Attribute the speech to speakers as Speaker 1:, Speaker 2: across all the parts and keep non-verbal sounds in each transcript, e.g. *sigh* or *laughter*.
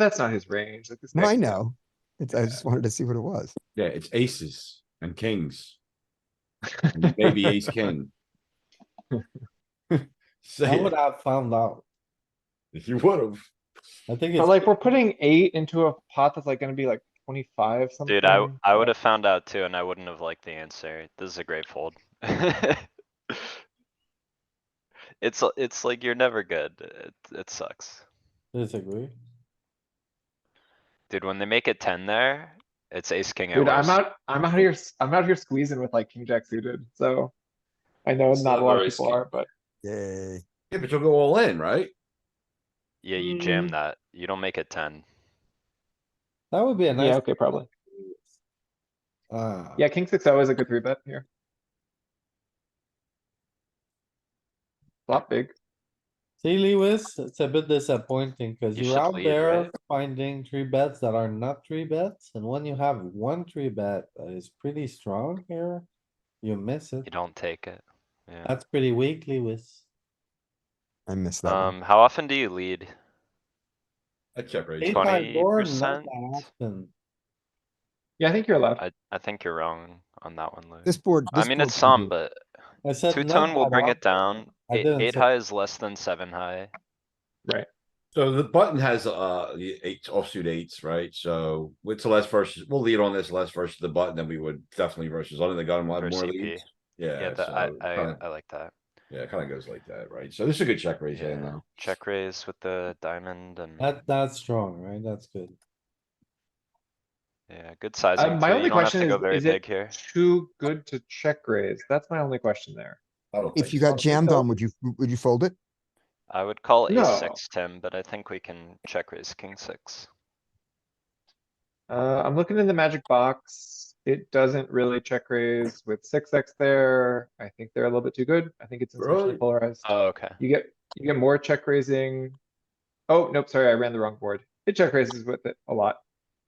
Speaker 1: that's not his range. Like this
Speaker 2: No, I
Speaker 1: next-
Speaker 2: know. It's, I
Speaker 1: Yeah.
Speaker 2: just wanted to see what it was.
Speaker 3: Yeah, it's aces and kings. and
Speaker 2: *laughs*
Speaker 3: Maybe ace king. *laughs*
Speaker 4: I
Speaker 3: Say
Speaker 4: would
Speaker 3: it,
Speaker 4: have found out.
Speaker 3: if you would've.
Speaker 4: I think
Speaker 1: But
Speaker 4: it's,
Speaker 1: like, we're putting eight into a pot that's like gonna be like twenty-five something.
Speaker 5: Dude, I, I would have found out too, and I wouldn't have liked the answer. This is a great fold. *laughs* It's, l- it's like you're never good. It, it sucks.
Speaker 4: disagree.
Speaker 5: Dude, when they make a ten there, it's ace, king at
Speaker 1: Dude, I'm
Speaker 5: worst.
Speaker 1: out, I'm out here, s- I'm out here squeezing with like king jack suited, so. I know
Speaker 6: It's
Speaker 1: not a
Speaker 6: not
Speaker 1: lot of
Speaker 6: very
Speaker 1: people
Speaker 6: skin-
Speaker 1: are, but
Speaker 2: Yay.
Speaker 3: Yeah, but you'll go all in, right?
Speaker 5: Yeah, you jam
Speaker 1: Mm.
Speaker 5: that. You don't make a ten.
Speaker 4: That would be
Speaker 1: yeah,
Speaker 4: a nice,
Speaker 1: okay, probably.
Speaker 4: ah,
Speaker 1: Yeah, king six O is a good three bet here. Flop big.
Speaker 4: see Lewis, it's a bit disappointing because
Speaker 5: You
Speaker 4: you're
Speaker 5: should
Speaker 4: out
Speaker 5: lead,
Speaker 4: there
Speaker 5: right?
Speaker 4: finding three bets that are not three bets. And when you have one three bet that is pretty strong here, you miss
Speaker 5: You
Speaker 4: it.
Speaker 5: don't take it. Yeah.
Speaker 4: That's pretty weak, Lewis.
Speaker 2: I missed that one.
Speaker 5: Um, how often do you lead?
Speaker 3: I check raise.
Speaker 4: Eight by board, not
Speaker 5: 20%.
Speaker 4: that often.
Speaker 1: Yeah, I think you're allowed.
Speaker 5: I, I think you're wrong on that one, Lou.
Speaker 2: This board.
Speaker 5: I
Speaker 2: this
Speaker 5: mean,
Speaker 2: board
Speaker 5: it's
Speaker 2: can
Speaker 5: some,
Speaker 2: do-
Speaker 5: but
Speaker 4: I said
Speaker 5: two
Speaker 4: not
Speaker 5: tone will
Speaker 4: that
Speaker 5: bring
Speaker 4: often.
Speaker 5: it down.
Speaker 4: I
Speaker 5: Eight,
Speaker 4: didn't
Speaker 5: eight
Speaker 4: say-
Speaker 5: high is less than seven high.
Speaker 3: So the button has, uh, the eight offsuit eights, right? So with less versus, we'll lead on this less versus the button than we would definitely versus under the gun, we'll have
Speaker 5: Versus
Speaker 3: more
Speaker 5: CP.
Speaker 3: leads.
Speaker 5: Yeah,
Speaker 3: Yeah,
Speaker 5: that, I,
Speaker 3: so,
Speaker 5: I,
Speaker 3: kinda-
Speaker 5: I like that.
Speaker 3: yeah, it kinda goes like that, right? So this is a good check raise hand
Speaker 5: Yeah,
Speaker 3: though.
Speaker 5: check raise with the diamond and,
Speaker 4: That, that's strong, right? That's good.
Speaker 5: yeah, good sizing.
Speaker 1: uh, my
Speaker 5: too.
Speaker 1: only
Speaker 5: You don't have
Speaker 1: question
Speaker 5: to go
Speaker 1: is-
Speaker 5: very
Speaker 1: is it
Speaker 5: big here.
Speaker 1: Too good to check raise. That's my only question there.
Speaker 3: I don't
Speaker 2: If
Speaker 3: think
Speaker 2: you
Speaker 3: so.
Speaker 1: Oh,
Speaker 2: got jammed on, would you, would you fold it?
Speaker 5: I would call
Speaker 1: No.
Speaker 5: ace six, Tim, but I think we can check raise king six.
Speaker 1: Uh, I'm looking in the magic box. It doesn't really check raise with six X there. I think they're a little bit too good. I think it's insufficiently
Speaker 3: Really?
Speaker 1: polarized.
Speaker 5: Oh, okay.
Speaker 1: You get, you get more check raising. Oh, nope, sorry, I ran the wrong board. It check raises with it a lot.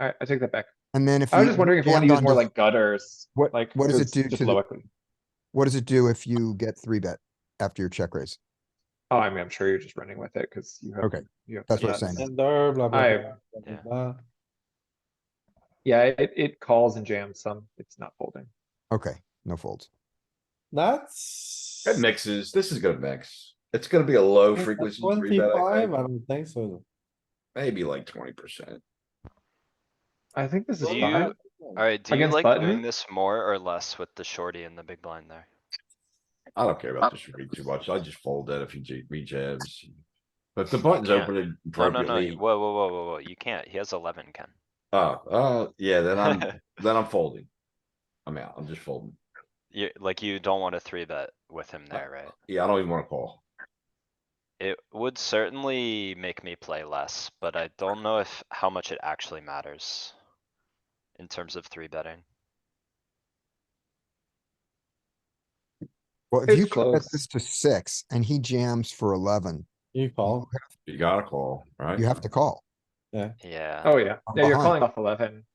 Speaker 1: Alright, I take that back.
Speaker 2: And then if.
Speaker 1: I was just wondering if you wanna
Speaker 2: jammed
Speaker 1: use more
Speaker 2: onto-
Speaker 1: like gutters.
Speaker 2: What-
Speaker 1: like,
Speaker 2: what does it
Speaker 1: it's
Speaker 2: do
Speaker 1: just
Speaker 2: to the-
Speaker 1: low equity.
Speaker 2: What does it do if you get three bet after your check raise?
Speaker 1: Oh, I mean, I'm sure you're just running with it, cuz you have.
Speaker 2: Okay,
Speaker 1: you have
Speaker 2: that's what I'm
Speaker 1: nuts.
Speaker 2: saying.
Speaker 5: Mm.
Speaker 4: And there, blah, blah,
Speaker 1: I-
Speaker 4: blah, blah, blah,
Speaker 5: yeah.
Speaker 4: blah.
Speaker 1: Yeah, it, it calls and jams some. It's not folding.
Speaker 2: Okay, no folds.
Speaker 4: That's.
Speaker 3: It mixes, this is gonna mix. It's gonna be a low
Speaker 4: At
Speaker 3: frequency three bet, I
Speaker 4: Twenty-five,
Speaker 3: think.
Speaker 4: I don't think so.
Speaker 3: maybe like twenty percent.
Speaker 1: I think this is
Speaker 5: Do
Speaker 1: fine.
Speaker 5: you- Alright, do you
Speaker 1: Against
Speaker 5: like
Speaker 1: button?
Speaker 5: doing this more or less with the shorty and the big blind there?
Speaker 3: I don't care about this read too much. I just fold that if he j- rejabs. But if the button's
Speaker 5: can't.
Speaker 3: open
Speaker 5: No, no, no, you-
Speaker 3: appropriately.
Speaker 5: whoa, whoa, whoa, whoa, whoa, you can't. He has eleven, Ken.
Speaker 3: Oh, oh, yeah, then
Speaker 5: *laughs*
Speaker 3: I'm,
Speaker 1: Um,
Speaker 3: then I'm folding. I'm out. I'm just folding.
Speaker 5: You, like, you don't want a three bet with him there, right?
Speaker 3: Yeah, I don't even wanna call.
Speaker 5: It would certainly make me play less, but I don't know if, how much it actually matters. In terms of three betting.
Speaker 2: Well, if you
Speaker 1: It's
Speaker 2: cut
Speaker 1: close.
Speaker 2: this to six and he jams for eleven,
Speaker 4: You call.
Speaker 3: You gotta call, right?
Speaker 2: you have to call.
Speaker 5: Yeah,
Speaker 1: Oh, yeah.
Speaker 2: I'm
Speaker 1: Yeah, you're
Speaker 2: behind.
Speaker 1: calling off eleven.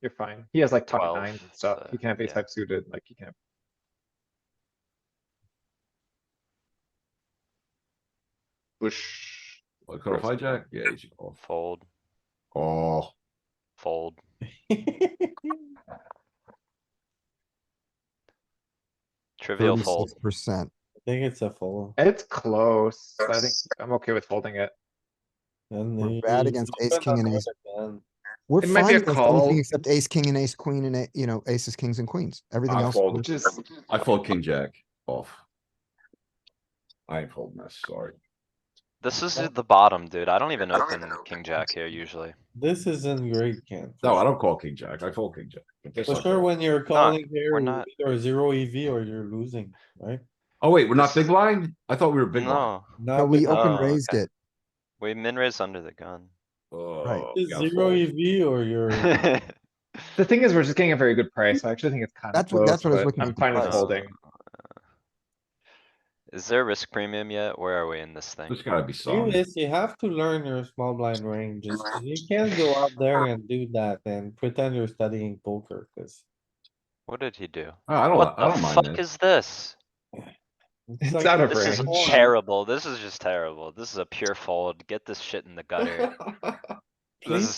Speaker 1: You're fine. He has like top
Speaker 5: 12,
Speaker 1: nines and stuff.
Speaker 5: so,
Speaker 1: He can't be
Speaker 5: yeah.
Speaker 1: type suited, like he can't. Push.
Speaker 3: Like, cut off hijack? Yeah, you should call.
Speaker 5: fold,
Speaker 3: Oh,
Speaker 5: fold.
Speaker 4: *laughs*
Speaker 5: Trivial fold.
Speaker 2: Percent.
Speaker 4: I think it's a fold.
Speaker 1: It's close. I think I'm okay with folding it.
Speaker 4: And
Speaker 2: We're
Speaker 4: you-
Speaker 2: bad
Speaker 4: you
Speaker 2: against
Speaker 4: open
Speaker 2: ace, king,
Speaker 4: up
Speaker 2: and ace.
Speaker 4: again.
Speaker 2: We're
Speaker 1: It
Speaker 2: fine
Speaker 1: might be a
Speaker 2: with
Speaker 1: call.
Speaker 2: anything except ace, king and ace, queen and, a- you know, aces, kings and queens. Everything
Speaker 3: I
Speaker 2: else.
Speaker 3: fold.
Speaker 2: we're-
Speaker 1: Just,
Speaker 3: I fold king jack off. I ain't folding this, sorry.
Speaker 5: This is at the bottom, dude. I don't even open king jack here usually.
Speaker 4: This isn't great, Ken.
Speaker 3: No, I don't call king jack. I fold king jack. But this
Speaker 4: For
Speaker 3: I
Speaker 4: sure,
Speaker 3: call.
Speaker 4: when you're calling
Speaker 5: we're
Speaker 4: here,
Speaker 5: not-
Speaker 4: you're zero EV or you're losing, right?
Speaker 3: Oh, wait, we're not big blind? I thought we were big blind.
Speaker 5: No,
Speaker 2: No, we
Speaker 4: uh,
Speaker 5: open-
Speaker 2: open
Speaker 5: Oh,
Speaker 2: raised
Speaker 5: okay.
Speaker 2: it.
Speaker 5: we min raise under the gun.
Speaker 3: Oh, we gotta
Speaker 4: Zero
Speaker 3: fold.
Speaker 4: EV or
Speaker 5: *laughs*
Speaker 4: you're,
Speaker 1: the thing is, we're just getting a very good price. so I actually think it's kind of
Speaker 2: That's what-
Speaker 1: close,
Speaker 2: that's what I was
Speaker 1: but
Speaker 2: looking
Speaker 1: I'm
Speaker 2: at,
Speaker 1: fine with
Speaker 5: price.
Speaker 1: folding.
Speaker 5: Is there a risk premium yet? Where are we in this thing?
Speaker 3: There's gotta be some.
Speaker 4: Lewis, you have to learn your small blind ranges. You can't go out there and do that and pretend you're studying poker, cause.
Speaker 5: What did he do?
Speaker 3: Oh, I don't,
Speaker 5: What
Speaker 3: I
Speaker 5: the
Speaker 3: don't mind
Speaker 5: fuck
Speaker 3: that.
Speaker 5: is this?
Speaker 1: It's
Speaker 4: like-
Speaker 1: out of
Speaker 5: This is
Speaker 1: range.
Speaker 5: *laughs* terrible. This is just terrible. This is a pure fold. Get this shit in the gutter. This is